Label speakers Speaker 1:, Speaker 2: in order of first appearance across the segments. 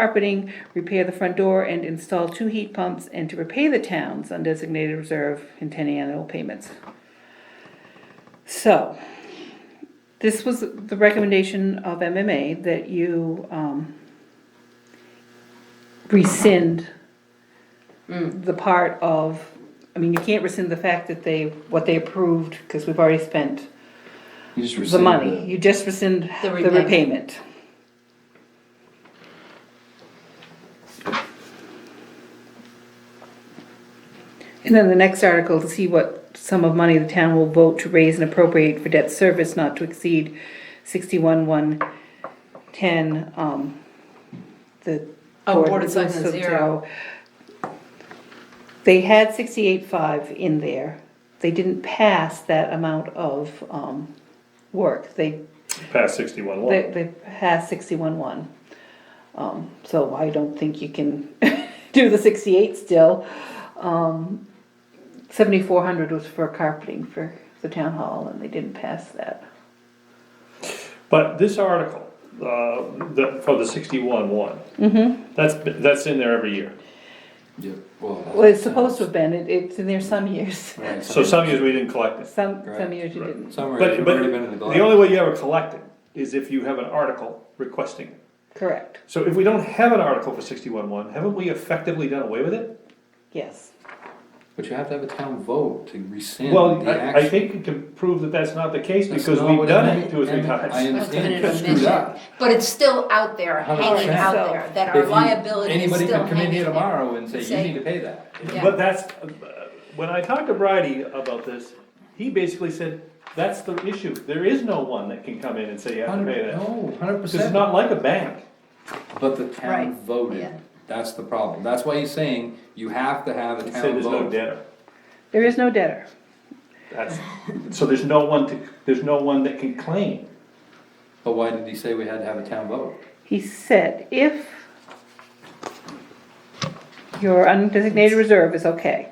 Speaker 1: carpeting, repair the front door, and install two heat pumps, and to repay the town's undesignated reserve in ten annual payments. So, this was the recommendation of MMA that you, um, rescind the part of, I mean, you can't rescind the fact that they, what they approved, because we've already spent
Speaker 2: You just
Speaker 1: the
Speaker 2: rescind
Speaker 1: money. You just rescind
Speaker 3: The
Speaker 1: the
Speaker 3: repayment.
Speaker 1: repayment. And then the next article to see what sum of money the town will vote to raise and appropriate for debt service not to exceed sixty-one, one, ten, um, the.
Speaker 3: Oh, Board of Selectmen
Speaker 1: Selectmen's
Speaker 3: zero.
Speaker 1: They had sixty-eight, five in there. They didn't pass that amount of, um, work. They
Speaker 4: past sixty-one one.
Speaker 1: they, they passed sixty-one one. Um, so I don't think you can do the sixty-eight still. Um, seventy-four hundred was for carpeting for the town hall and they didn't pass that.
Speaker 4: But this article, uh, the, for the sixty-one one. Mm-hmm. That's, been- that's in there every year.
Speaker 2: Yeah, well.
Speaker 1: Well, it's supposed to have been, it, it's in there some years,
Speaker 2: Right,
Speaker 4: So some years we didn't collect it.
Speaker 1: some, some
Speaker 2: Right,
Speaker 1: years you
Speaker 4: right.
Speaker 1: didn't.
Speaker 2: Somewhere,
Speaker 4: But,
Speaker 2: it's
Speaker 4: but
Speaker 2: already been in the.
Speaker 4: the only way you ever collect it is if you have an article requesting it.
Speaker 1: Correct,
Speaker 4: So if we don't have an article for sixty-one one, haven't we effectively done away with it?
Speaker 1: yes.
Speaker 2: But you have to have a town vote to rescind
Speaker 4: Well,
Speaker 2: the
Speaker 4: I, I
Speaker 2: action.
Speaker 4: think we can prove that that's not the case
Speaker 2: That's
Speaker 4: because
Speaker 2: not
Speaker 4: we've
Speaker 2: what I
Speaker 4: done
Speaker 2: meant.
Speaker 4: it two or three
Speaker 2: And I
Speaker 4: times.
Speaker 3: It's been
Speaker 2: understand
Speaker 3: an
Speaker 2: you screwed
Speaker 3: omission,
Speaker 2: up.
Speaker 3: But it's still out there, hanging
Speaker 2: 100%.
Speaker 3: out there, that
Speaker 2: If
Speaker 3: our
Speaker 2: you-
Speaker 3: liability is still
Speaker 2: Anybody
Speaker 3: hanging there.
Speaker 2: can come in here tomorrow and say, you
Speaker 3: Say-
Speaker 2: need to pay that.
Speaker 3: Yeah.
Speaker 4: But that's, uh, when I talked to Bridie about this, he basically said, that's the issue. There is no one that can come in and say you have to pay
Speaker 2: Hundred,
Speaker 4: that.
Speaker 2: no, hundred
Speaker 4: Cause it's
Speaker 2: percent.
Speaker 4: not like a bank.
Speaker 2: But the
Speaker 3: Right,
Speaker 2: town
Speaker 3: yeah.
Speaker 2: voted, that's the problem, that's why he's saying you have to have a
Speaker 4: It said
Speaker 2: town
Speaker 4: there's no
Speaker 2: vote.
Speaker 4: debtor.
Speaker 1: There is no debtor,
Speaker 4: That's, so there's no one to, there's no one that can claim.
Speaker 2: But why did he say we had to have a town vote?
Speaker 1: he said, if your undesignated reserve is okay.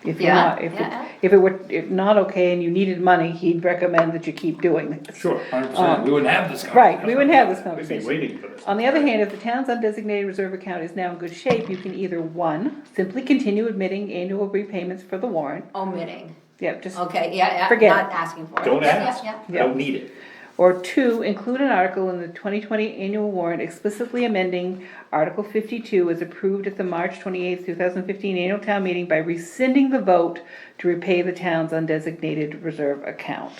Speaker 1: If you're
Speaker 3: Yeah,
Speaker 1: not, if, it-
Speaker 3: yeah.
Speaker 1: if it were, if not okay and you needed money, he'd recommend that you keep doing this.
Speaker 4: Sure.
Speaker 2: Hundred percent, we wouldn't have this conversation.
Speaker 1: Uh, Right, we wouldn't have this
Speaker 4: We'd be
Speaker 1: conversation.
Speaker 4: waiting for this.
Speaker 1: On the other hand, if the town's undesignated reserve account is now in good shape, you can either, one, simply continue admitting annual repayments for the warrant,
Speaker 3: Omitting,
Speaker 1: yep, just,
Speaker 3: okay, yeah, yeah,
Speaker 1: Forget
Speaker 3: not
Speaker 1: it.
Speaker 3: asking for it.
Speaker 4: Don't
Speaker 3: Yeah,
Speaker 4: ask,
Speaker 3: yeah, yeah.
Speaker 4: don't need it.
Speaker 1: or two, include an article in the twenty twenty annual warrant explicitly amending Article fifty-two as approved at the March twenty-eighth, two thousand fifteen annual town meeting by rescinding the vote to repay the town's undesignated reserve account.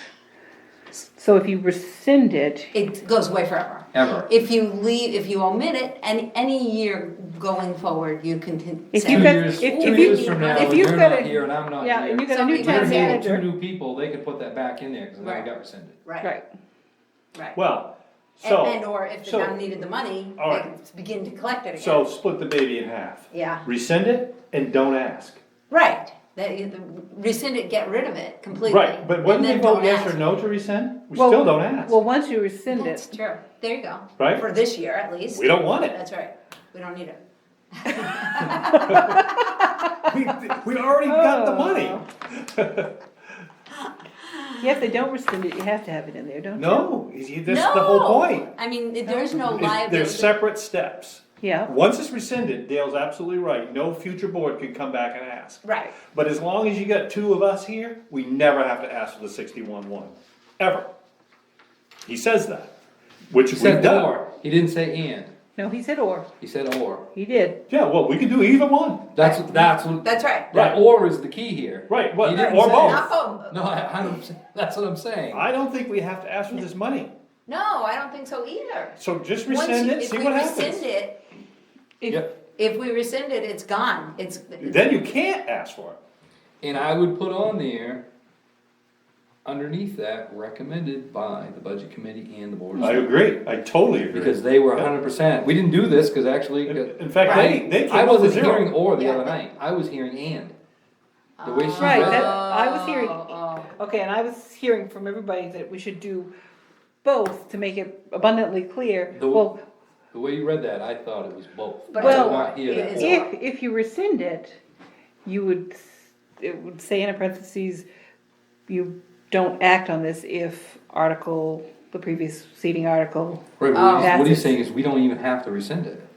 Speaker 1: So if you rescind it,
Speaker 3: It goes away forever.
Speaker 2: Ever.
Speaker 3: If you leave, if you omit it, any, any year going forward, you can con-
Speaker 1: If
Speaker 3: say-
Speaker 1: you
Speaker 2: Two
Speaker 1: got-
Speaker 2: years, two
Speaker 1: if-
Speaker 3: if
Speaker 2: years
Speaker 3: you-
Speaker 2: from now,
Speaker 3: if
Speaker 2: when
Speaker 1: you've
Speaker 2: you're
Speaker 1: got
Speaker 2: not
Speaker 1: a-
Speaker 2: here and I'm not
Speaker 1: yeah, and you
Speaker 2: here.
Speaker 1: got a new
Speaker 3: Somebody
Speaker 1: town
Speaker 2: We're
Speaker 3: has
Speaker 2: here,
Speaker 3: it.
Speaker 1: manager,
Speaker 2: two new people, they could put that back in there, cause then
Speaker 3: Right.
Speaker 2: it got rescinded.
Speaker 3: Right,
Speaker 1: right.
Speaker 3: right.
Speaker 4: Well,
Speaker 3: And,
Speaker 4: so.
Speaker 3: and or if the
Speaker 4: so-
Speaker 3: town needed the money,
Speaker 4: All
Speaker 3: they
Speaker 4: right.
Speaker 3: could begin to collect it again.
Speaker 4: So split the baby in half.
Speaker 3: Yeah.
Speaker 4: Rescind it and don't ask.
Speaker 3: Right, that, you- rescind it, get rid of it completely.
Speaker 4: Right, but
Speaker 3: and
Speaker 4: when they
Speaker 3: then
Speaker 4: vote
Speaker 3: don't
Speaker 4: yes
Speaker 3: ask.
Speaker 4: or no to rescind, we
Speaker 1: Well,
Speaker 4: still don't ask.
Speaker 1: Well, once you rescind
Speaker 3: That's
Speaker 1: it,
Speaker 3: true, there you go.
Speaker 4: Right?
Speaker 3: For this year at least.
Speaker 4: We don't want it.
Speaker 3: That's right, we don't need it.
Speaker 4: We, we already got the money.
Speaker 3: Oh.
Speaker 1: Yeah, if they don't rescind it, you have to have it in there, don't you?
Speaker 4: No, that's the whole point.
Speaker 3: I mean, if there's no
Speaker 4: It's- They're
Speaker 3: liability,
Speaker 4: separate steps.
Speaker 1: Yeah,
Speaker 4: Once it's rescinded, Dale's absolutely right, no future board can come back and ask.
Speaker 3: right,
Speaker 4: But as long as you got two of us here, we never have to ask for the sixty-one one, ever. He says that, which
Speaker 2: He
Speaker 4: we've
Speaker 2: said
Speaker 4: done.
Speaker 2: or, he didn't say and,
Speaker 1: no, he said or,
Speaker 2: he said or.
Speaker 1: he did.
Speaker 4: Yeah, well, we can do either one,
Speaker 2: That's, that's what.
Speaker 3: that's right.
Speaker 2: That or is the key here.
Speaker 4: Right, what-
Speaker 2: He didn't
Speaker 4: or
Speaker 2: say-
Speaker 4: both.
Speaker 3: Not both.
Speaker 2: No, I, I don't, that's what I'm saying.
Speaker 4: I don't think we have to ask for this money,
Speaker 3: No, I don't think so either.
Speaker 4: so just
Speaker 3: Once
Speaker 4: rescind
Speaker 3: you-
Speaker 4: it,
Speaker 3: if
Speaker 4: see
Speaker 3: we
Speaker 4: what
Speaker 3: rescind
Speaker 4: happens.
Speaker 3: it-
Speaker 2: Yep.
Speaker 3: If we rescind it, it's gone, it's.
Speaker 4: Then you can't ask for it,
Speaker 2: And I would put on there, underneath that, recommended by the budget committee and the board. of
Speaker 4: I
Speaker 2: Selectmen.
Speaker 4: agree, I totally agree.
Speaker 2: Because they were hundred percent, we didn't do this, cause actually. uh,
Speaker 4: In in fact, they, they
Speaker 2: I
Speaker 4: came up with
Speaker 2: wasn't hearing
Speaker 4: zero.
Speaker 2: or the
Speaker 3: Yeah.
Speaker 2: other night, I was hearing and. The way she
Speaker 1: Right, that,
Speaker 2: read it.
Speaker 1: I was hearing,
Speaker 3: Oh,
Speaker 1: okay, and I was hearing from everybody that we should do both to make it abundantly clear.
Speaker 2: The-
Speaker 1: Well,
Speaker 2: The way you read that, I thought it was both.
Speaker 3: But
Speaker 2: I
Speaker 1: Well,
Speaker 2: did not hear
Speaker 3: it
Speaker 2: that.
Speaker 3: is-
Speaker 1: if, if you rescind it, you would, it would say in parentheses, you don't act on this if article, the previous seating article
Speaker 2: Right, but what he's-
Speaker 1: That's
Speaker 2: what he's
Speaker 1: it.
Speaker 2: saying is, we don't even have to rescind it.